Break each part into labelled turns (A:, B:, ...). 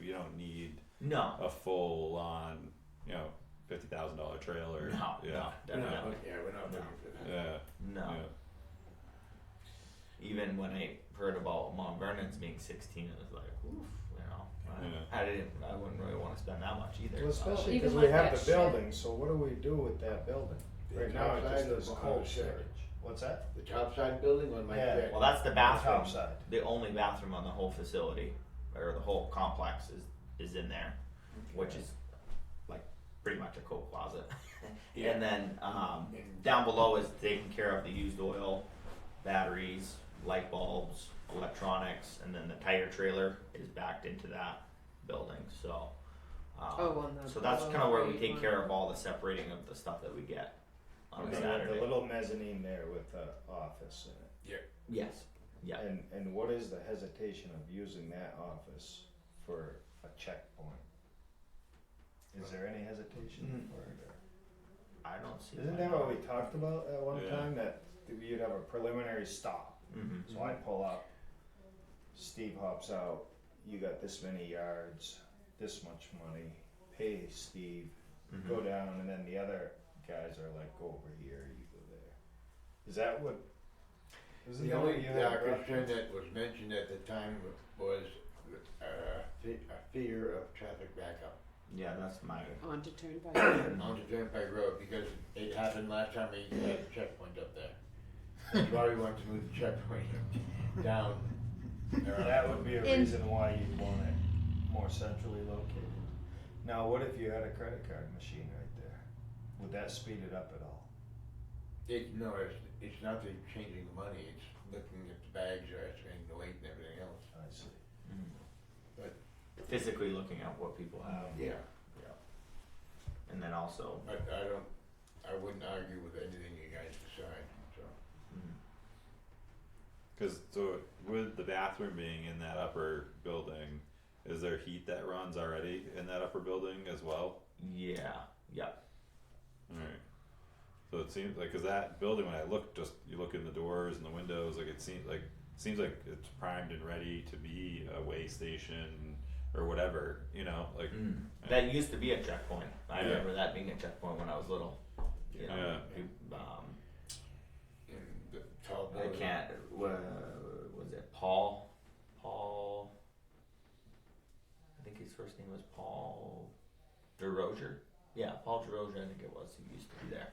A: you don't need
B: No.
A: a full on, you know, fifty thousand dollar trailer.
B: No,
A: Yeah.
B: no,
A: yeah.
B: definitely.
C: not look- yeah, we're not looking for that.
A: Yeah.
B: No.
A: yeah.
B: Even when I heard about Mount Vernon's being 16, it was like, oof, you know. I-
A: Yeah.
B: I didn't. I wouldn't really want to spend that much either.
D: Well,
B: so-
D: especially
E: Even
D: because we
E: like
D: have
E: that
D: the
E: shed.
D: building, so what do we do with that building?
C: The
D: Right now, it
C: topside
D: just
C: of
D: is
C: the
D: cold
C: shed.
D: storage. What's that?
C: The top side building on my
D: Yeah.
C: deck.
B: Well, that's the bathroom.
D: Top side.
B: The only bathroom on the whole facility, or the whole complex, is is in there, which is like pretty much a coat closet.
C: Yeah.
B: And then um,
C: And-
B: down below is taking care of the used oil, batteries, light bulbs, electronics, and then the tire trailer is backed into that building. So. Um,
E: Oh, on the-
B: so that's
E: on
B: kind of
E: the
B: where we
E: right
B: take
E: one.
B: care of all the separating of the stuff that we get on
D: And
B: a
D: then you have
B: Saturday.
D: The little mezzanine there with the office in it.
B: yes. Yeah.
D: And, and what is the hesitation of using that office for a checkpoint? Is there any hesitation
B: Mm.
D: for it? or-
B: I don't see.
D: Hmm. Isn't that what we talked about at one
A: Yeah.
D: time, that you'd have a preliminary stop?
B: hmm
D: So I pull up, Steve hops out, you got this many yards, this much money, pay Steve,
B: mm-hmm.
D: go down, and then the other guys are like, go over here, you go there. Is that what? Isn't
C: The
D: that
C: only
D: what you
C: uh,
D: had brought-
C: concern that was mentioned at the time was uh, fe- a fear of traffic backup
B: Yeah, that's my.
E: On to turnpike.
C: on the Turnpike Road because it happened last time we had a checkpoint up there. That's why we wanted to move the checkpoint down. around.
D: That would be a
E: In-
D: reason why you'd want it more centrally located. Now, what if you had a credit card machine right there? Would that speed it up at all?
C: It, no, it's, it's not the changing the money, it's looking at the bags or estimating the weight and everything else.
D: I see.
A: Mm-hmm.
B: Physically looking at what people have,
D: Um,
C: Yeah.
B: and then also.
C: But I don't, I wouldn't argue with anything you guys decide, so.
B: mm,
A: Because so with the bathroom being in that upper building, is there heat that runs already in that upper building as well?
B: Yeah. Yeah.
A: All right. So it seems like because that building, when I look, just you look in the doors and the windows, like it seems like seems like it's primed and ready to be a way station or whatever. You know, like
B: Mm. That used to be a checkpoint. I
A: Yeah.
B: remember that being a checkpoint when I was little. You know,
A: Yeah.
B: we- um,
C: And the
A: Oh,
C: tall
B: I
C: building.
B: can't. Uh, was it Paul? Paul. I think his first name was Paul DeRozier. Yeah, Paul DeRozier, I think it was. He used to be there.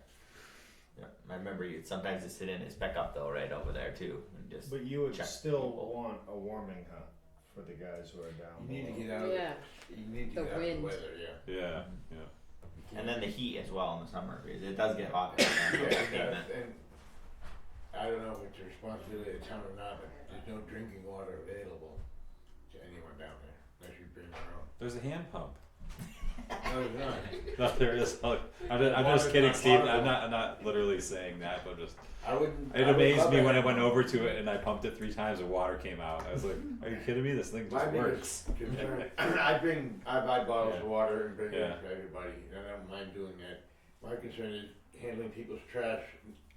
B: Yeah, I remember you'd sometimes just sit in his pickup though, right over there too, and just.
D: But you would
B: Check
D: still
B: people.
D: want a warming hut for the guys who are down
C: You need to
D: below.
C: get out of,
E: yeah.
C: you need to get
E: The
C: out of the
E: wind.
C: weather, yeah.
A: yeah,
B: And then the heat as well in the summer because it does get hot. down there on the
C: Yeah,
B: pavement.
C: and I don't know if it's the responsibility of the town or not, but there's no drinking water available to anyone down there, unless you bring your own.
A: there's a hand pump.
C: No, there's not.
A: No, there is. I'm just, I'm just
C: Water's
A: kidding,
C: not
A: Steve.
C: potable.
A: I'm not. I'm not literally saying that, but just
C: I wouldn't. I
A: it
C: would
A: amazed
C: love
A: me
C: it.
A: when I went over to it and I pumped it three times. The water came out. I was like, "Are you kidding me? This thing
C: My
A: just works."
C: biggest concern, I bring, I buy bottles of
A: Yeah.
C: water and bring
A: Yeah.
C: them to everybody, and I don't mind doing that. My concern is handling people's trash,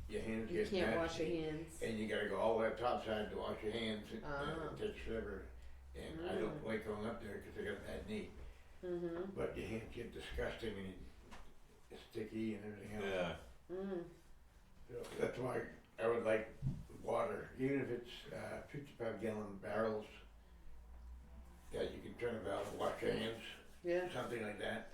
C: your hands
E: You
C: get
E: can't wash your
C: nasty,
E: hands.
C: and you gotta go all the way up topside to wash your hands, and
E: Ah.
C: uh,
E: Mm.
C: it takes forever. And I don't like going up there because I got a bad knee,
E: Mm-hmm.
C: but your hands get disgusting and it's sticky and everything else.
A: Yeah.
E: Mm.
C: So That's why I would like water, even if it's uh, fifty-five gallon barrels that you can turn about and wash your hands,
E: Yeah.
C: something like that.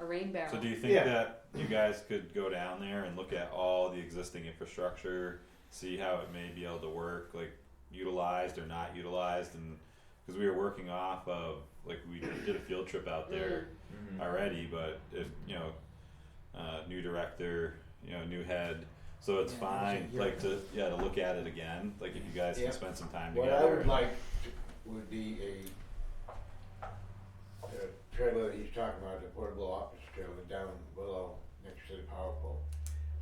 E: A rain barrel.
A: So do you think
C: Yeah.
A: that you guys could go down there and look at all the existing infrastructure, see how it may be able to work, like utilized or not utilized, and because we were working off of like we did a field trip out there
B: Mhm.
C: Mm-hmm.
A: already, but if you know, uh, new director, you know, new head. So it's
C: Yeah,
A: fine,
C: yeah.
A: like to yeah to look at it again. Like if you guys
C: Yeah.
A: can spend some time
C: What I
A: together.
C: would like to- would be a, the trailer that he's talking about, the portable office trailer down below next to the power pole.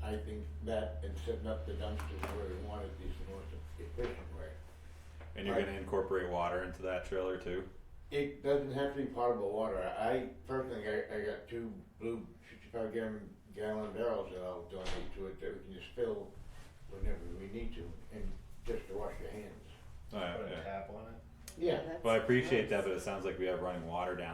C: I think that and setting up the dumpsters where we want it is the most efficient way.
A: and you're gonna incorporate water into that trailer too.
C: It doesn't have to be potable water. I personally, I, I got two blue fifty-five gallon, gallon barrels that I'll donate to it that we can just fill whenever we need to and just to wash your hands.
A: All right,
D: Put a
A: Oh, yeah.
D: tap on it.
E: yeah. that's
A: Well, I appreciate
E: nice.
A: that, but it sounds like we have running water down.